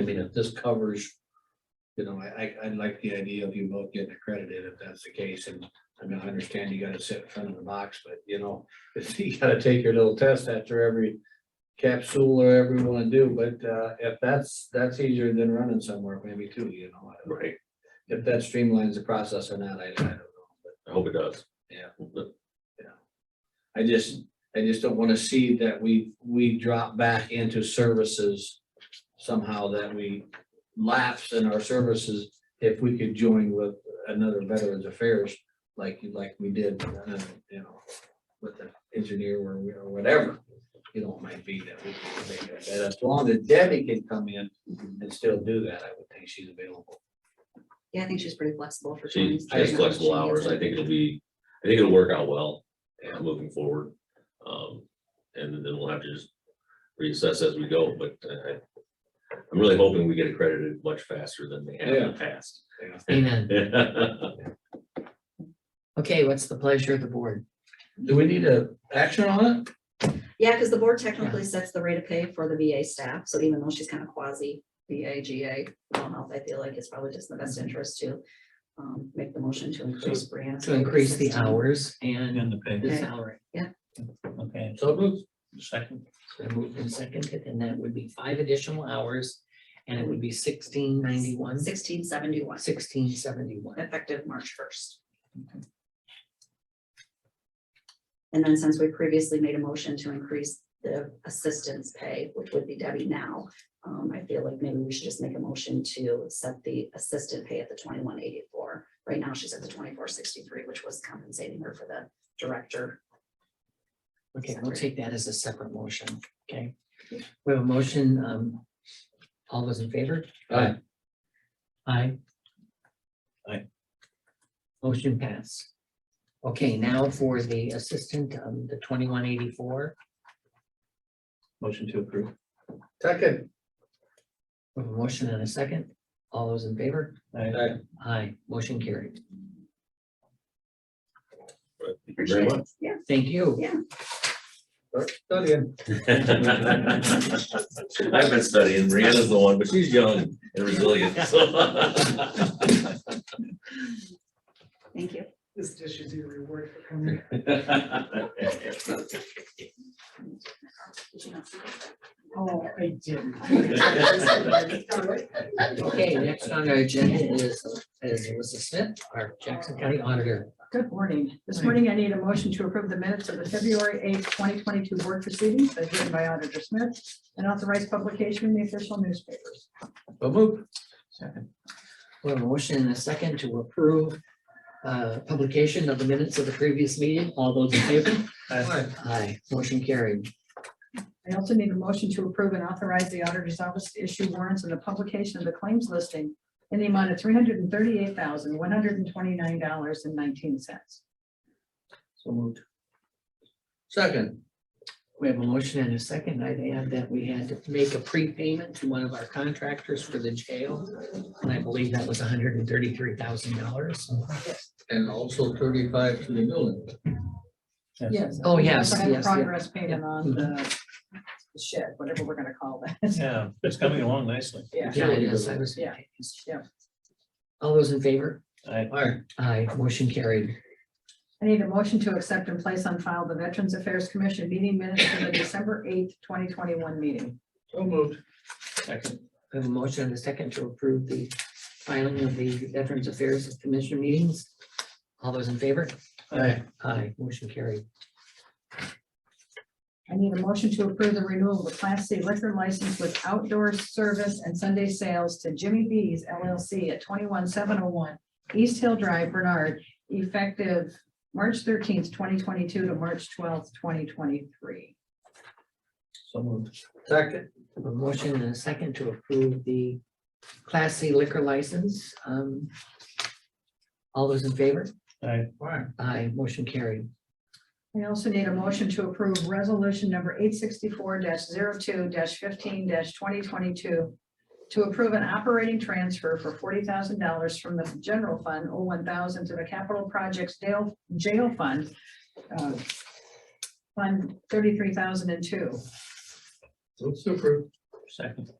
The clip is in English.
I mean, if this covers, you know, I, I, I like the idea of you both getting accredited if that's the case, and I mean, I understand you gotta sit in front of the box, but you know, if you gotta take your little test after every capsule or every one to do, but, uh, if that's, that's easier than running somewhere, maybe too, you know. I don't- Right, If that streamlines the process or not, I, I don't know, but I hope it does. Yeah. But I just, I just don't wanna see that we, we drop back into services somehow that we lapse in our services if we could join with another Veterans Affairs like, like we did, uh, you know, with the engineer or, we- or whatever, you know, it might be that we can make that. As long as Debbie can come in and still do that, I would think she's available. Yeah, I think she's pretty flexible for. She times. has flexible hours. I think it'll be, I think it'll work out well Yeah. uh, moving forward. Um, and then we'll have to just reassess as we go, but I, I'm really hoping we get accredited much faster than they have in the past. Amen. Okay, what's the pleasure of the board? Do we need a action on it? Yeah, because the board technically sets the rate of pay for the VA staff, so even though she's kind of quasi VA, GA, mental health, I feel like it's probably just in the best Mm-hmm. interest to um, make the motion to increase Brianna's. To increase the 16. hours and And the pay, the Okay. salary. okay, So moved. second, So moved and seconded, and that would be five additional hours, and it would be sixteen ninety-one, Sixteen seventy-one, sixteen seventy-one. effective March first. And then since we previously made a motion to increase the assistance pay, which would be Debbie now, um, I feel like maybe we should just make a motion to set the assistant pay at the twenty-one eighty-four. Right now, she's at the twenty-four sixty-three, which was compensating her for the director. Okay, we'll take that as a separate motion, okay? We have a motion, um, all those in favor? Aye. Aye. Aye. Motion pass. Okay, now for the assistant, um, the twenty-one eighty-four, motion to approve, Second. we have a motion and a second. All those in favor? Aye. Aye, motion carried. Thank you very much. Yeah, Thank you. Done again. I've been studying. Brianna's the one, but she's young and resilient. so. thank you. This dish is your reward for coming. Oh, I didn't. Okay, next on our agenda is, is Alyssa Smith, our Jackson County Auditor. Good morning. This morning I need a motion to approve the minutes of the February eighth, twenty twenty-two board proceedings as written by Auditor Smith and authorize publication in the official newspapers. So moved. We have a motion and a second to approve uh, publication of the minutes of the previous meeting. All those in favor? Aye. Aye, motion carried. I also need a motion to approve and authorize the auditor's office to issue warrants and the publication of the claims listing in the amount of three hundred and thirty-eight thousand, one hundred and twenty-nine dollars and nineteen cents. So moved. Second. We have a motion and a second. I'd add that we had to make a prepayment to one of our contractors for the jail. And I believe that was hundred and thirty-three thousand dollars. And also thirty-five to the building. Yes. Oh, yes, We're gonna yes, yeah. Progress payment on the shed, whatever we're gonna call that. yeah, it's coming along nicely. Yeah. Yeah, it is. I was. Yeah, yeah. All those in favor? I, Aye. Aye, motion carried. I need a motion to accept and place on file the Veterans Affairs Commission meeting minutes for the December eighth, twenty twenty-one meeting. So moved. second, We have a motion and a second to approve the filing of the Veterans Affairs Commission meetings. All those in favor? Aye. Aye, motion carried. I need a motion to approve the renewal of the Class C liquor license with outdoor service and Sunday sales to Jimmy B's LLC at twenty-one seven oh one East Hill Drive, Bernard, effective March thirteenth, twenty twenty-two to March twelfth, twenty twenty-three. so moved, Second. A motion and a second to approve the Class C liquor license. Um, All those in favor? I, Aye. Aye, motion carried. I also need a motion to approve resolution number eight sixty-four 2 fifteen twenty twenty-two to approve an operating transfer for forty thousand dollars from the general fund, oh, one thousand to the capital projects jail, jail fund. uh, Fund thirty-three thousand and two. So approved. second,